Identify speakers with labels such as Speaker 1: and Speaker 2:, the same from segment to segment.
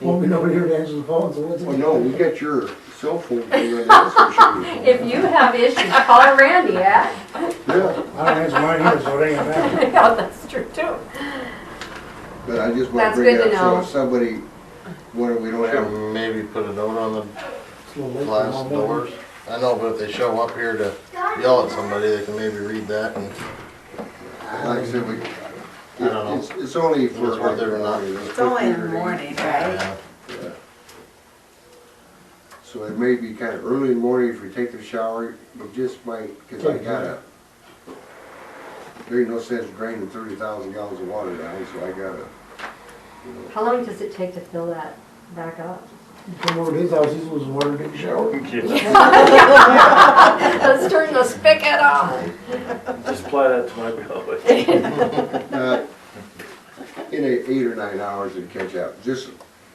Speaker 1: Won't be nobody here to answer the phone, so what's it?
Speaker 2: Well, Oh, no, we got your cell phone. for you, that's for sure.
Speaker 3: If you have issues, call Randy, yeah?
Speaker 1: I
Speaker 2: Yeah,
Speaker 1: don't answer mine either, so it ain't gonna matter.
Speaker 3: Yeah, that's true too.
Speaker 2: but I just wanna
Speaker 3: That's
Speaker 2: bring
Speaker 3: good
Speaker 2: it
Speaker 3: to
Speaker 2: up, so
Speaker 3: know.
Speaker 2: if somebody, what, we don't have,
Speaker 4: Should maybe put a note on the
Speaker 1: It's a little late for
Speaker 4: glass
Speaker 1: my mother.
Speaker 4: doors. I know, but if they show up here to yell at somebody, they can maybe read that and
Speaker 2: like I said, we, it-
Speaker 4: I don't know.
Speaker 2: it's, it's only for. uh,
Speaker 4: It's worth it or not.
Speaker 5: It's only in the morning, right?
Speaker 4: yeah,
Speaker 2: So it may be kinda early in the morning if we take the shower, but just might, cause I gotta. There ain't no sense draining thirty thousand gallons of water down, so I gotta, you know,
Speaker 3: How long does it take to fill that back up?
Speaker 1: Come over to his house, he was water, didn't shower.
Speaker 3: Let's turn the spigot on.
Speaker 6: Just apply that to my bill.
Speaker 2: Uh, in eight, eight or nine hours and catch up. Just,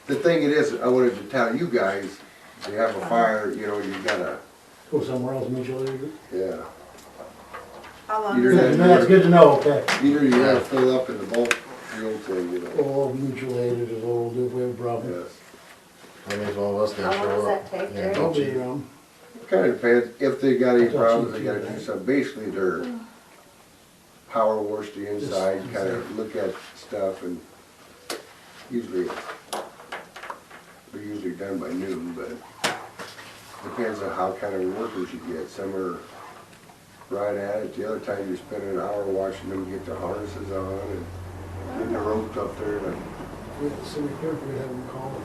Speaker 2: the thing it is, I wanted to tell you guys, if you have a fire, you know, you gotta,
Speaker 1: Go somewhere else, meet you later.
Speaker 2: yeah.
Speaker 5: How long
Speaker 2: You're
Speaker 5: is
Speaker 2: not-
Speaker 1: Good, no, That's
Speaker 5: it?
Speaker 1: good to know, okay.
Speaker 2: Either you gotta fill up in the bulk fuel thing, you know.
Speaker 1: Or meet you later, is all we'll do if we have a problem.
Speaker 2: Yes.
Speaker 4: that means one of us
Speaker 3: How
Speaker 4: didn't
Speaker 3: long does
Speaker 4: show up.
Speaker 3: that take,
Speaker 4: Yeah,
Speaker 3: Jerry?
Speaker 1: I'll
Speaker 4: don't
Speaker 1: be um,
Speaker 4: cheat.
Speaker 1: around.
Speaker 2: Kinda depends, if they got any problems, they gotta do some, basically their power wash the inside, kinda look at stuff and usually, they're usually done by noon, but depends on how kind of workers you get. Some are right at it, the other time you spend an hour watching them get their harnesses on and getting the ropes up there and
Speaker 1: We have to sit here, we have them call.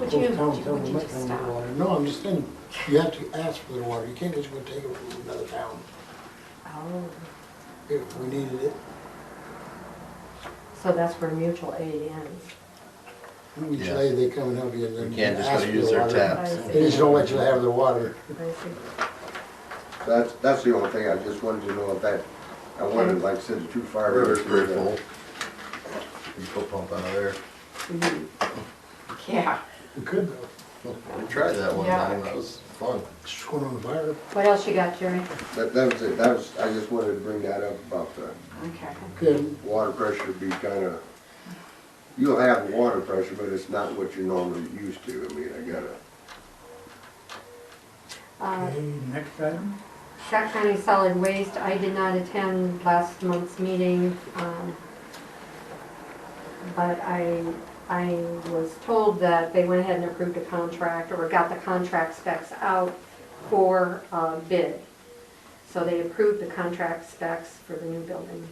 Speaker 3: Would you-
Speaker 1: Those towns tell
Speaker 3: would
Speaker 1: them,
Speaker 3: you
Speaker 1: "Let them
Speaker 3: stop?"
Speaker 1: get water." No, I'm just saying, you have to ask for the water, you can't just go take it from another town,
Speaker 3: Oh,
Speaker 1: if we needed it.
Speaker 3: so that's where mutual aid ends.
Speaker 1: Each
Speaker 4: Yes.
Speaker 1: day they come and help you and then.
Speaker 4: You can't just
Speaker 1: ask
Speaker 4: go
Speaker 1: for
Speaker 4: use
Speaker 1: the
Speaker 4: their
Speaker 1: water.
Speaker 4: taps.
Speaker 3: Right.
Speaker 1: They just don't let you have the water.
Speaker 3: I see.
Speaker 2: that's, that's the only thing. I just wanted to know if that, I wanted, like I said, the two fire.
Speaker 4: River's pretty full. You put pump out of there.
Speaker 5: Yeah.
Speaker 1: We could though,
Speaker 4: We tried that one
Speaker 5: Yeah.
Speaker 4: time, that was fun.
Speaker 1: just going on the fire.
Speaker 3: What else you got, Jerry?
Speaker 2: That, that was it. That was, I just wanted to bring that up about the
Speaker 5: Okay.
Speaker 1: Okay,
Speaker 2: water pressure be kinda, you'll have water pressure, but it's not what you're normally used to. I mean, I gotta,
Speaker 3: Uh,
Speaker 7: next item?
Speaker 3: Sac County Solid Waste, I did not attend last month's meeting, um, but I, I was told that they went ahead and approved a contract, or got the contract specs out for uh, bid. So they approved the contract specs for the new building.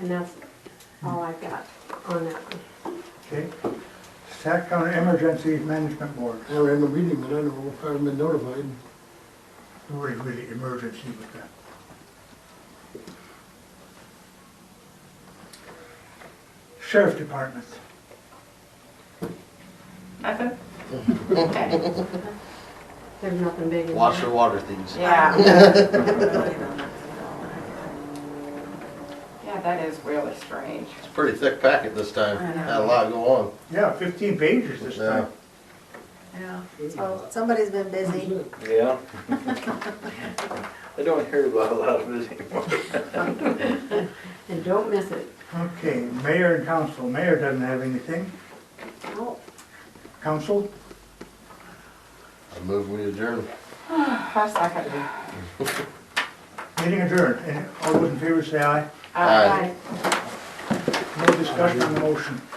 Speaker 3: And that's all I've got on that one.
Speaker 7: Okay. Sac County Emergency Management Board,
Speaker 1: I ran the meeting, but I don't know if I've been notified.
Speaker 7: who is really emergency with that? Sheriff Department,
Speaker 5: Nothing? Okay.
Speaker 3: There's nothing big in there.
Speaker 4: Watch the water thieves.
Speaker 5: Yeah. Yeah, that is really strange.
Speaker 4: It's a pretty thick packet this time,
Speaker 5: I know.
Speaker 4: had a lot go on.
Speaker 7: yeah, fifteen pages this time.
Speaker 5: Yeah. Well, somebody's been busy.
Speaker 6: Yeah. I don't hear about a lot of this anymore.
Speaker 3: And don't miss it.
Speaker 7: Okay, mayor and council, mayor doesn't have anything,
Speaker 3: Oh,
Speaker 7: council,
Speaker 4: I move we adjourn.
Speaker 5: How's that gonna be?
Speaker 7: meeting adjourned, and all those in favor say aye,
Speaker 4: Aye.
Speaker 3: bye.
Speaker 7: no discussion on the motion.